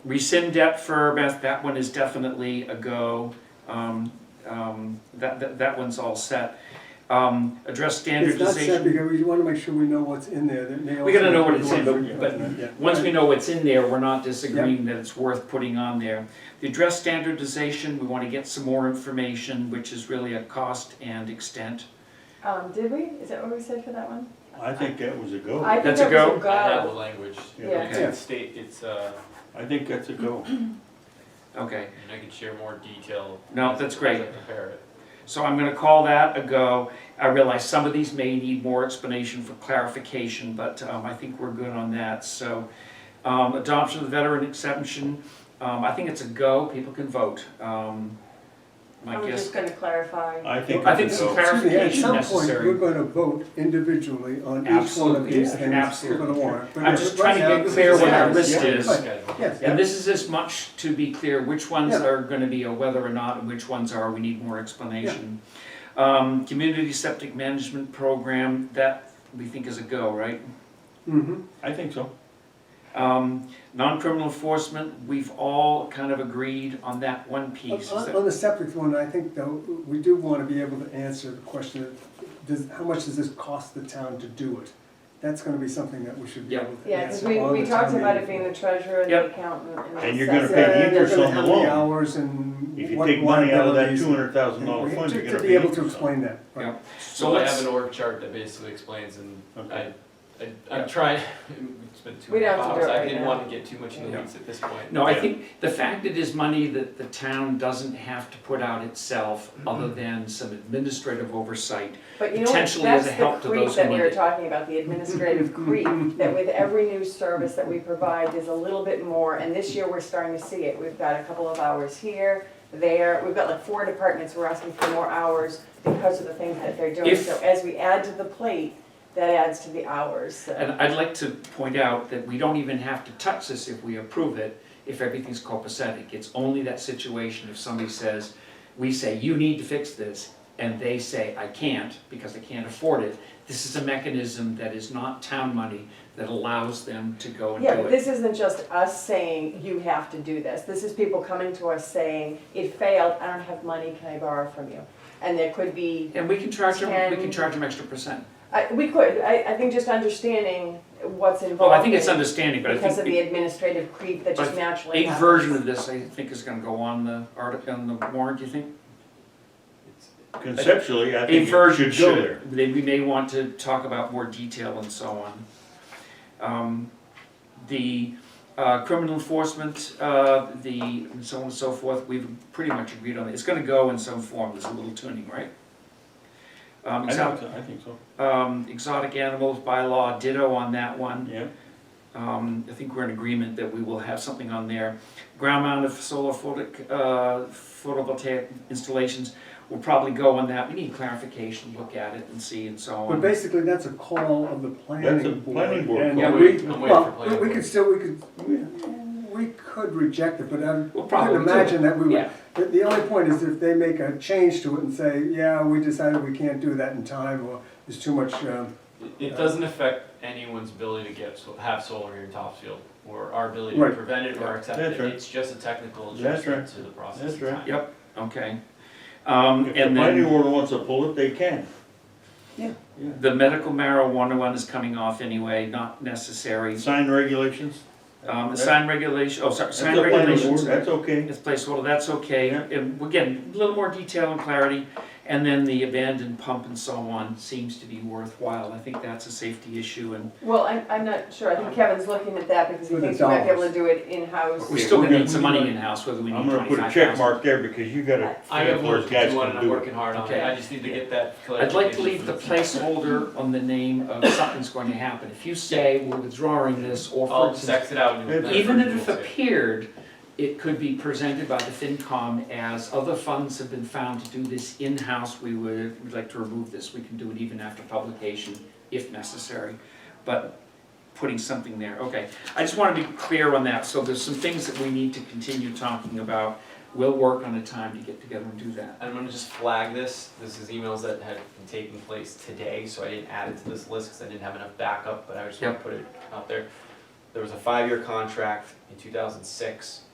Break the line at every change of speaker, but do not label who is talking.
Rescind debt for Beth, that one is definitely a go. Um, um, That, that, that one's all set. Um, Address
It's not set
standardization.
because we want to make sure we know what's in there. that may
We gotta
also-
know what it's in,
Yeah,
but, but
yeah.
once we know what's in there, we're not disagreeing that it's worth putting on there. The address standardization, we wanna get some more information, which is really a cost and extent.
Um, did we? Is that what we said for that one?
I think that was Oh, a go.
I
I
think
That's a
that was
go?
a
I have the
go.
language.
Yeah.
It's- It's state, it's, uh,
think that's a go.
Okay,
and I can share more detail.
No,
as-
that's great.
as I Prepare it.
so I'm gonna call that a go. I realize some of these may need more explanation for clarification, but um, I think we're good on that, so. um, Adoption of the veteran exemption, um, I think it's a go, people can vote. Um, My
I'm
guess,
just gonna clarify.
I think
I think
it's a
some
go.
clarification
At some point, we're
necessary.
going to vote individually on each one of
Absolutely,
these things.
absolutely.
We're going to warrant. But
I'm
if
just
it
trying to
runs out,
get
this
clear what our
yeah,
list
yeah,
is.
right.
Schedule.
Yes,
And this is as much to be clear which ones
Yeah.
are gonna be a whether or not and which ones are, we need more explanation. Um, community septic management program, that we think is a go, right?
mhm.
I think so.
Um, non-criminal enforcement, we've all kind of agreed on that one
On-
piece. is
On
that-
on the septic one, I think though, we do want to be able to answer the question, of, does, how much does this cost the town to do it? That's going to be something that we should be
Yeah.
able to
Yeah, 'cause
answer
we,
on
we
the
talked
town
about
meeting
it being
floor.
the treasurer and the
Yep.
accountant and the
And you're gonna
assessor.
pay
Yeah, they're
interest
uh, gonna
on the
have the
loan.
hours and
If you
what
take money out of that
liabilities
two
and-
hundred thousand dollar
and
fund,
to-
you're gonna
To
pay.
be able to
interest on it.
explain that, right.
Yeah. So
So I have
let's,
an org chart that basically explains and I,
Okay.
I,
Yeah.
I'm trying, it's been two
We
and a
don't
half
have to do it
hours, I
right
didn't
now.
wanna get too much in the
Yeah.
weeds at this point.
no, I
Yeah.
think the fact it is money that the town doesn't have to put out itself,
Mm-hmm.
other than some administrative oversight.
But you know what,
potentially as
that's
a help to
the creep
those who
that we
need
were
it.
talking about, the administrative creep, that with every new service that we provide, there's a little bit more, and this year we're starting to see it. We've got a couple of hours here, there, we've got like four departments, we're asking for more hours because of the things that they're doing.
If-
So as we add to the plate, that adds to the hours, so.
And I'd like to point out that we don't even have to touch this if we approve it, if everything's copacetic. It's only that situation if somebody says, we say, you need to fix this, and they say, I can't, because I can't afford it. This is a mechanism that is not town money that allows them to go and
Yeah, but
do it.
this isn't just us saying, you have to do this. This is people coming to us saying, it failed, I don't have money, can I borrow from you? And there could be,
And we can charge them, we can
Ten-
charge them extra percent.
I, we could, I, I think just understanding what's involved.
Well, I think it's
in-
understanding, but I
Because of the
think
administrative creep that just
But
naturally
a
happens.
version of this, I think, is gonna go on the article, on the warrant, do you think?
It's-
Conceptually, I
A
think it
version
should go there.
should, then we may want to talk about more detail and so on. Um, The uh, criminal enforcement, uh, the, and so on and so forth, we've pretty much agreed on it. It's gonna go in some form, there's a little tuning, right? Um,
I
exo-
think so, I think so,
um, Exotic animals bylaw, ditto on that one.
yeah.
Um, I think we're in agreement that we will have something on there. Ground mounted solar photic, uh, photovoltaic installations, we'll probably go on that, we need clarification, look at it and see and so
But
on.
basically, that's a call of the
That's a
planning board.
planning board
and
call.
I'm
we-
waiting- I'm waiting for
well,
planning
we- We
board.
could still, we could, we we could reject it, but I
We'll
can
probably do it.
imagine that we would.
Yeah.
The, the only point is if they make a change to it and say, yeah, we decided we can't do that in time, or there's too much, um,
It- It doesn't affect anyone's ability to get, so- have solar here in Topsfield, or our ability to
Right.
prevent it or accept
That's
it.
right.
It's just a technical
That's
adjustment to the process.
That's
and
right.
time.
Yep, okay. Um,
If the
and
planning
then
board wants to pull it, they can.
the medical marijuana one is coming off anyway, not necessary.
Sign regulations.
Um, the
That-
sign regulation, oh, sorry,
That's
sign
the planning board,
regulations.
That's okay.
It's placeholder, that's okay,
Yeah.
and again, a little more detail and clarity, and then the abandoned pump and so on seems to be worthwhile, I think that's a safety issue, and
Well, I'm, I'm not sure, I think Kevin's looking at that because he
With the
thinks we might be able
dollars.
to do it in-house.
we're still gonna
we're
need some
gonna-
money in-house, whether we need
I'm
twenty-five
gonna
thousand.
put a check mark there because you gotta.
I
figure out
have
where
work
guys
to do
can
on it, I'm
do it.
working hard on
Okay.
it, I just need to get that
I'd like to
clarification
leave
from
the
the-
placeholder on the name of something's going to happen, if you say we're withdrawing this, or for
I'll
instance,
sex it out. and-
even if it appeared, it could be presented by the FinCom as other funds have been found to do this in-house, we would, we'd like to remove this, we can do it even after publication, if necessary, but putting something there, okay. I just wanna be clear on that, so there's some things that we need to continue talking about, we'll work on a time to get together and do that.
And I'm gonna just flag this, this is emails that had been taking place today, so I didn't add it to this list, cause I didn't have enough backup, but I just wanna
Yep.
put it out there. there was a five-year contract in two thousand six.